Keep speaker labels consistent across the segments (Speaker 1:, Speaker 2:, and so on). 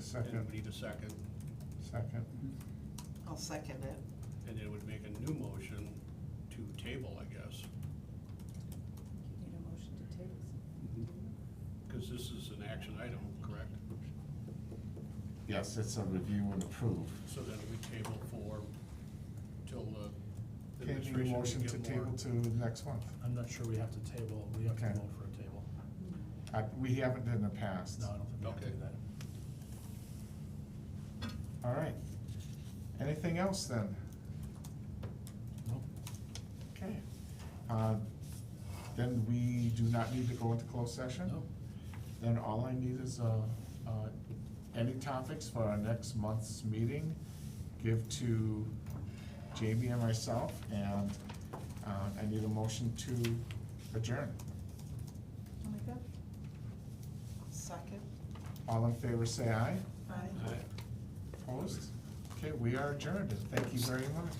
Speaker 1: Second.
Speaker 2: And we need a second,
Speaker 1: Second.
Speaker 3: I'll second it.
Speaker 2: and it would make a new motion to table, I guess,
Speaker 4: You need a motion to table something.
Speaker 2: because this is an action item, correct?
Speaker 1: Yes, it's a review and approve.
Speaker 2: So then we table for, till the
Speaker 1: Can you
Speaker 2: administration
Speaker 1: motion
Speaker 2: can
Speaker 1: to
Speaker 2: get more.
Speaker 1: table to next month?
Speaker 5: I'm not sure we have to table, we have to
Speaker 1: Okay.
Speaker 5: vote for a table.
Speaker 1: I, we haven't in the past.
Speaker 5: No, I don't think we have to
Speaker 2: Okay.
Speaker 5: do that.
Speaker 1: All right. Anything else then?
Speaker 5: Nope.
Speaker 1: Okay. Uh, Then we do not need to go into closed session?
Speaker 5: No.
Speaker 1: Then all I need is, uh, uh, any topics for our next month's meeting, give to Jamie and myself, and, uh, I need a motion to adjourn.
Speaker 6: Oh
Speaker 4: I'll make that.
Speaker 3: Second?
Speaker 1: All in favor, say aye.
Speaker 3: Aye.
Speaker 2: Aye.
Speaker 1: Opposed? Okay, we are adjourned, and thank you very much.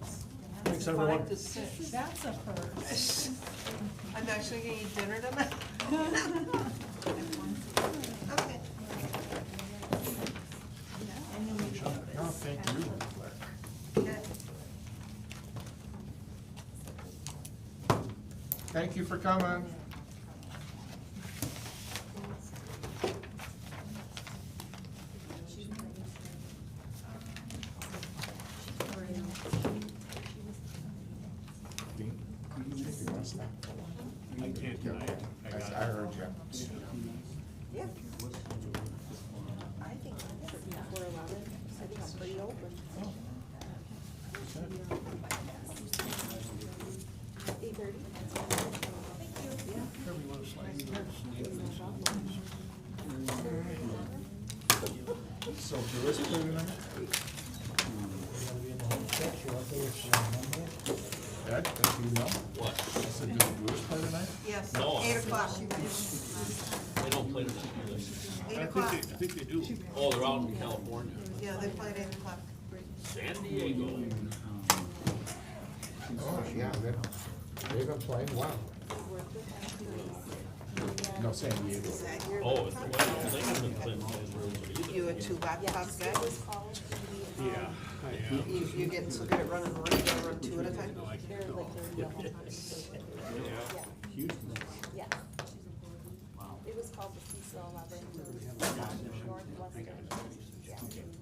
Speaker 3: It's
Speaker 5: Thanks, everyone.
Speaker 3: five to
Speaker 4: This is-
Speaker 3: six.
Speaker 4: That's a first.
Speaker 3: I'm actually gonna eat dinner tonight. Okay.
Speaker 1: No, thank you.
Speaker 3: Okay.
Speaker 1: Thank you for coming. Dean, you take your last name.
Speaker 2: I can't deny it, I
Speaker 1: I
Speaker 2: got it.
Speaker 1: I heard you.
Speaker 6: Yeah. I think that's before eleven, I think I'm pretty open. Eight thirty? Thank you. Yeah.
Speaker 2: Sure, we want to slide these sneakers in.
Speaker 1: So there is food in it? Ed, if you know. What? I said, do the Brewers play tonight?
Speaker 3: Yes, eight o'clock, you guys.
Speaker 7: They don't play them in English.
Speaker 3: Eight
Speaker 2: I think
Speaker 3: o'clock.
Speaker 2: they, I think they do.
Speaker 7: Oh, they're out in California.
Speaker 3: Yeah, they play at eight o'clock.
Speaker 7: San Diego.
Speaker 1: Oh, yeah, they, they've been playing well. No, San Diego.
Speaker 3: Is that your
Speaker 7: Oh, it's, well, I don't think it's in Clinton, either.
Speaker 3: You and two laptops back?
Speaker 2: Yeah, I am.
Speaker 3: You, you get so good at running around, you gotta run two at a time?
Speaker 2: No, I can't, no. Yeah.
Speaker 6: Yeah. It was called the Cecil Eleven, it was Northwestern. Yeah.